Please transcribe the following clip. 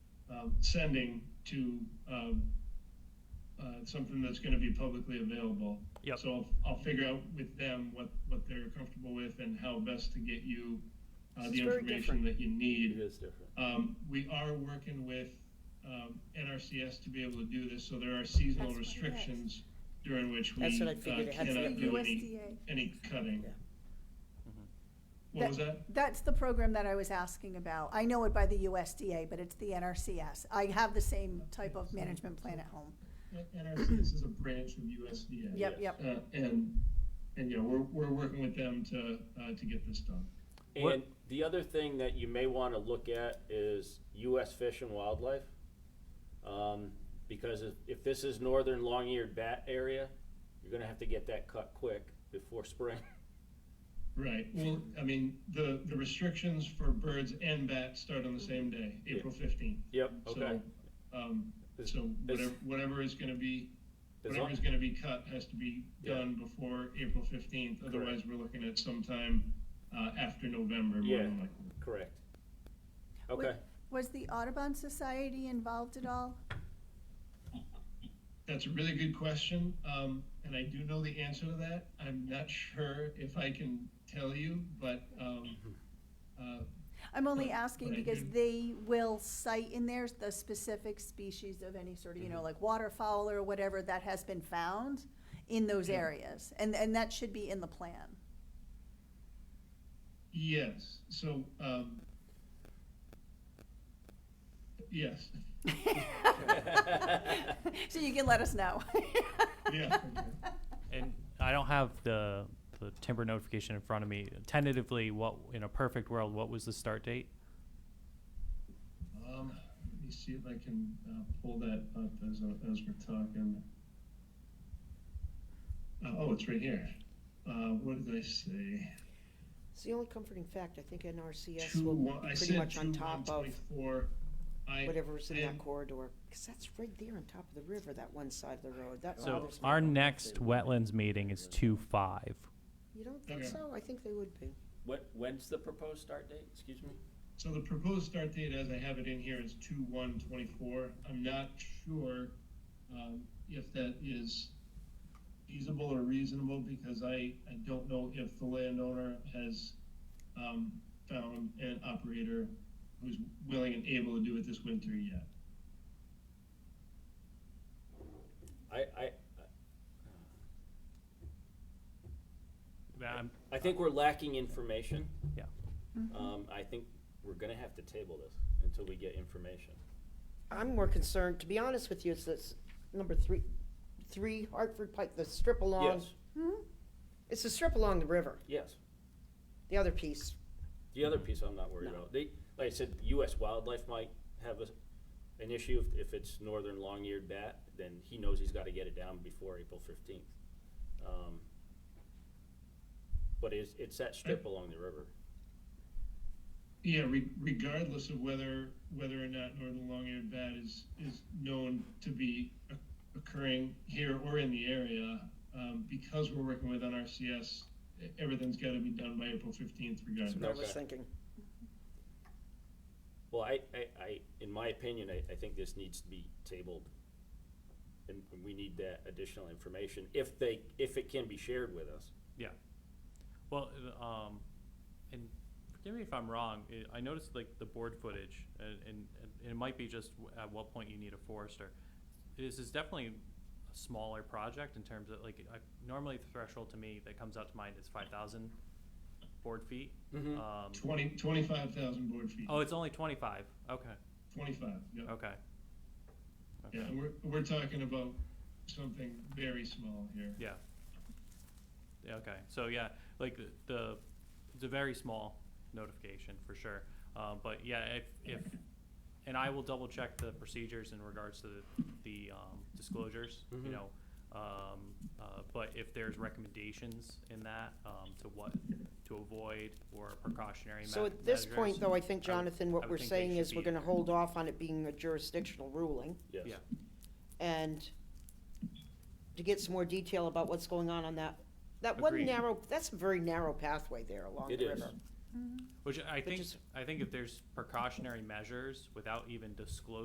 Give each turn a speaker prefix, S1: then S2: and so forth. S1: um, sending to um, uh, something that's going to be publicly available.
S2: Yep.
S1: So I'll, I'll figure out with them what, what they're comfortable with and how best to get you uh,
S3: This
S1: the
S3: is very
S1: information that you
S4: It
S1: need.
S4: is different.
S1: Um, we are working with um, NRCS to be able to do this, so there are seasonal
S3: That's what it is.
S1: restrictions during which we uh,
S5: That's what I figured it had to
S1: cannot
S5: be.
S1: do any,
S3: USDA.
S1: any cutting.
S5: Yeah.
S4: Mm-hmm.
S1: What was that?
S3: That's the program that I was asking about. I know it by the USDA, but it's the NRCS. I have the same type of management plan at home.
S1: NRCS is a branch of USDA.
S3: Yep,
S4: Yes.
S3: yep.
S1: Uh, and, and, you know, we're, we're working with them to, uh, to get this done.
S2: What-
S4: And the other thing that you may want to look at is U.S. Fish and Wildlife. Um, because if, if this is northern long-eared bat area, you're gonna have to get that cut quick before spring.
S1: Right, well, I mean, the, the restrictions for birds and bats start on the same day, April fifteenth.
S4: Yep, okay.
S1: So, um,
S4: Is-
S1: so whatever,
S4: is-
S1: whatever is gonna be,
S4: As
S1: whatever
S4: long-
S1: is gonna be cut has to be
S4: Yeah.
S1: done before April fifteenth,
S4: Correct.
S1: otherwise we're looking at sometime, uh, after November, more
S4: Yeah.
S1: than likely.
S4: Correct.
S3: Wait,
S4: Okay,
S3: Was the Audubon Society involved at all?
S1: That's a really good question, um, and I do know the answer to that. I'm not sure if I can tell you, but, um, uh,
S3: I'm only
S1: Right,
S3: asking
S1: right,
S3: because
S1: you-
S3: they will cite in there the specific species of any sort of, you know, like waterfowl or whatever that has been found in those
S1: Yeah.
S3: areas. And, and that should be in the plan.
S1: yes, so, um, yes,
S3: So you can let us know.
S1: yeah.
S2: And I don't have the, the timber notification in front of me. Tentatively, what, in a perfect world, what was the start date?
S1: Um, let me see if I can, uh, pull that up as, as we're talking. Uh, oh, it's right here. Uh, what did I say?
S5: It's the only comforting fact, I think NRCS
S1: Two,
S5: will
S1: one, I
S5: be pretty
S1: said
S5: much
S1: two,
S5: on
S1: one,
S5: top of
S1: twenty-four. I-
S5: whatever's in
S1: I-
S5: that corridor, because that's right there on top of the river, that one side of the road, that
S2: So
S5: bothers me.
S2: our next wetlands meeting is two five.
S5: You don't think
S1: Okay.
S5: so? I think they would be.
S4: when, when's the proposed start date, excuse me?
S1: So the proposed start date, as I have it in here, is two one twenty-four. I'm not sure, um, if that is feasible or reasonable, because I, I don't know if the landowner has, um, found an operator who's willing and able to do it this winter yet.
S4: I, I,
S2: I'm,
S4: I think we're lacking information.
S2: Um, Yeah.
S4: Um, I think we're gonna have to table this until we get information.
S5: I'm more concerned, to be honest with you, it's this number three, three Hartford Pike, the strip along.
S4: Yes,
S5: It's the strip along the river,
S4: yes.
S5: the other piece.
S4: The other piece I'm not worried
S5: No.
S4: about, they, like I said, US wildlife might have a, an issue if, if it's northern long-eared bat, then he knows he's gotta get it down before April fifteenth. Um, But it's, it's that strip along the river.
S1: Yeah, re- regardless of whether, whether or not northern long-eared bat is, is known to be o- occurring here or in the area, um, because we're working with NRCS, e- everything's gotta be done by April fifteenth
S5: That's what I
S1: regardless.
S5: was
S4: Okay.
S5: thinking.
S4: Well, I, I, I, in my opinion, I, I think this needs to be tabled. And we need that additional information, if they, if it can be shared with us.
S2: yeah. Well, uh, um, and forgive me if I'm wrong, eh, I noticed like the board footage, uh, and, and and it might be just w- at what point you need a forester. This is definitely a smaller project in terms of, like, I, normally the threshold to me that comes out to mind is five thousand board feet.
S4: Mhm.
S2: Um,
S1: Twenty, twenty-five thousand board feet,
S2: Oh, it's only twenty-five, okay,
S1: twenty-five, yeah.
S2: okay. Okay.
S1: Yeah, and we're, we're talking about something very small here.
S2: Yeah. Yeah, okay, so yeah, like the- the, it's a very small notification for sure. Uh, but yeah, if, if, and I will double check the procedures in regards to the, the, um, disclosures,
S4: Mhm.
S2: you know. Um, uh, but if there's recommendations in that, um, to what, to avoid or precautionary
S5: So
S2: me-
S5: at this point, though, I think,
S2: I would-
S5: Jonathan,
S2: I
S5: what
S2: would
S5: we're
S2: think they
S5: saying
S2: should
S5: is we're
S2: be-
S5: gonna hold off on it being a jurisdictional ruling.
S4: Yes.
S2: Yeah.
S5: and to get some more detail about what's going on on that, that one
S2: Agreed.
S5: narrow, that's a very narrow pathway there along
S4: It
S5: the
S4: is.
S5: river.
S2: Which I think,
S5: is-
S2: I think if there's precautionary measures without even disclosing